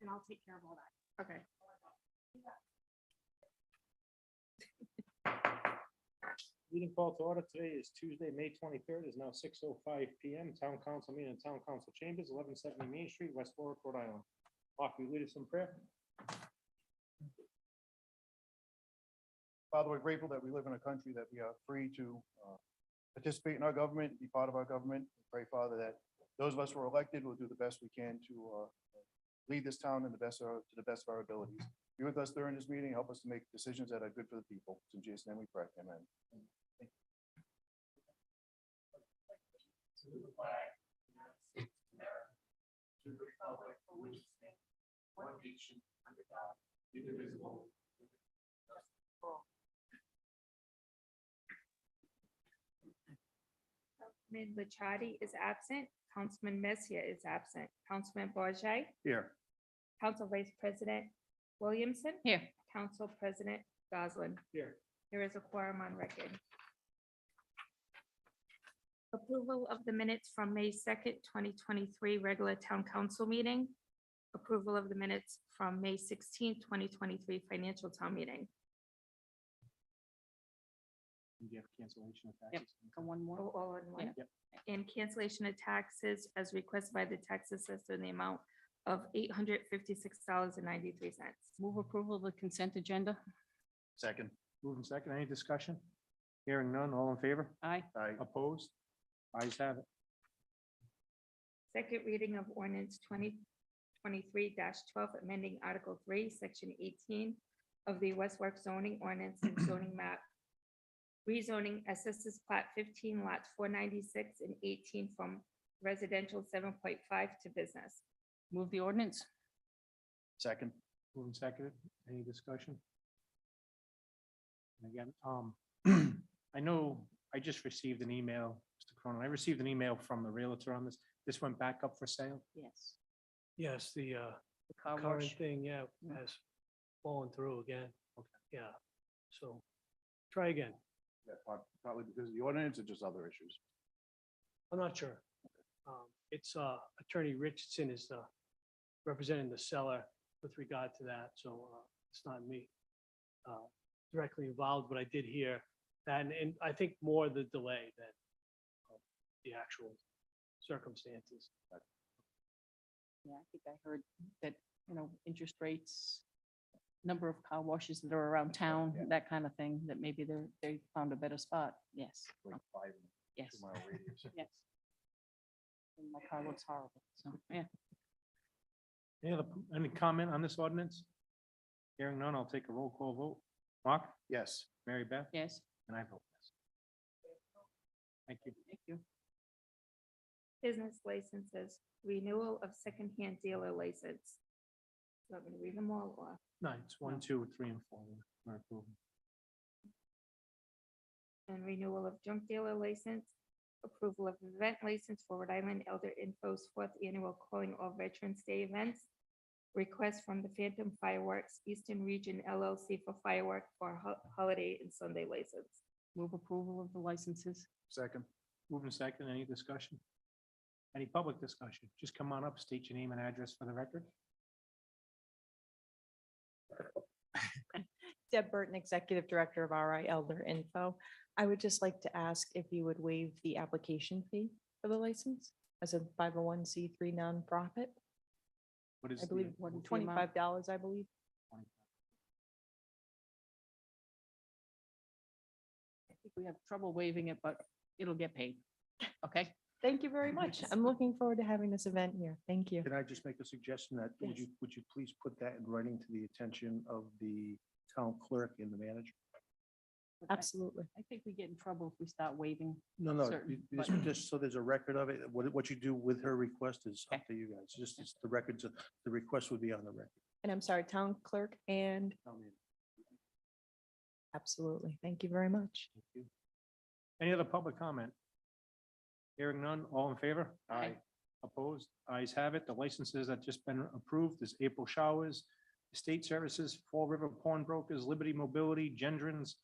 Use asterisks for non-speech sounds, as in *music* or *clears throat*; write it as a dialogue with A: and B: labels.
A: And I'll take care of all that.
B: Okay.
C: Meeting call to order today is Tuesday, May twenty-third, is now six oh five P M. Town Council meeting in Town Council Chambers, eleven seventy Main Street, West Warwick, Rhode Island. Mark, will you lead us in prayer?
D: Father, we're grateful that we live in a country that we are free to uh, participate in our government, be part of our government. We Pray, Father, that those of us who are elected will do the best we can to uh, lead this town in the best, of- to the best of our abilities. Be with us during this meeting, help us to make decisions that are good for the people. In Jesus' name we pray, amen.
B: Councilman Licciardi is absent. Councilman Messier is absent. Councilman Bourget,
D: Here.
B: Council Vice President Williamson.
A: Here.
B: Council President Goslin.
C: Here.
B: There is a quorum on record. Approval of the minutes from May second, twenty twenty-three, regular town council meeting. Approval of the minutes from May sixteenth, twenty twenty-three, financial town meeting.
C: Do you have cancellation of
A: Yep.
C: taxes?
A: One more.
B: All- all in one.
A: Yeah.
C: Yep.
B: And cancellation of taxes as requested by the tax assessor in the amount of eight hundred fifty-six dollars and ninety-three cents.
A: Move approval of the consent agenda.
D: Second.
C: Moving second, any discussion? Hearing none, all in favor?
A: Aye.
D: Aye.
C: Opposed? Ayes have it.
B: Second reading of ordinance twenty twenty-three twelve, amending Article three, Section eighteen of the West Warwick zoning ordinance and zoning map. Rezoning assesses plat fifteen lots four ninety-six and eighteen from residential seven point five to business.
A: Move the ordinance.
D: Second.
C: Moving second, any discussion? And again, um, *clears throat* I know I just received an email, Mr. Cronin, I received an email from the realtor on this. This went back up for sale?
A: Yes.
E: Yes, the uh,
A: The car
E: current
A: wash.
E: thing, yeah,
A: Mm.
E: has fallen through again. Yeah, so try again.
D: Yeah, prob- Probably because of the ordinance or just other issues.
E: I'm not sure. Um, It's uh, Attorney Richardson is the representing the seller with regard to that, so uh, it's not me uh, directly involved, but I did hear that, and- and I think more the delay than uh, the actual circumstances.
A: Yeah, I think I heard that, you know, interest rates, number of car washes that are around town,
D: Yeah.
A: that kind of thing, that maybe they're, they found a better spot. Yes,
D: Like five,
A: yes,
D: two mile radius.
A: yes. And My car looks horrible, so, yeah.
C: Any other, any comment on this ordinance? Hearing none, I'll take a roll call vote. Mark,
D: Yes.
C: Mary Beth,
A: Yes,
C: and I vote yes. Thank you.
A: thank you.
B: Business licenses, renewal of secondhand dealer license. Do you want me to read them all or?
C: No, it's one, two, three, and four. We're approving.
B: and renewal of junk dealer license, approval of event license for Rhode Island Elder Info's fourth annual calling all Veterans Day events, request from the Phantom Fireworks Eastern Region LLC for firework for ho- holiday and Sunday license.
A: Move approval of the licenses.
D: Second.
C: Moving second, any discussion? Any public discussion? Just come on up, state your name and address for the record.
F: Deb Burton, Executive Director of RI Elder Info. I would just like to ask if you would waive the application fee for the license as a five oh one C three nonprofit.
C: What is?
F: I
C: the-
F: believe
A: what is the amount?
F: twenty-five dollars, I believe.
A: I think we have trouble waiving it, but it'll get paid. Okay?
F: Thank you very much. I'm looking forward to having this event here. Thank you.
D: Can I just make a suggestion that, would
F: Yes.
D: you, would you please put that in writing to the attention of the town clerk and the manager?
A: But I-
F: Absolutely.
A: I think we get in trouble if we start waiving.
D: No, no,
A: Certain,
D: you- you just-
A: but-
D: just so there's a record of it, what, what you do with her request is
A: Okay.
D: up to you guys, just, it's the records, of- the request would be on the record.
F: And I'm sorry, Town Clerk and absolutely. Thank you very much.
C: Thank you. Any other public comment? Hearing none, all in favor?
A: Aye. Aye.
C: Opposed? Ayes have it. The licenses that just been approved is April Showers, Estate Services, Fall River Pawnbrokers, Liberty Mobility, Gendrons,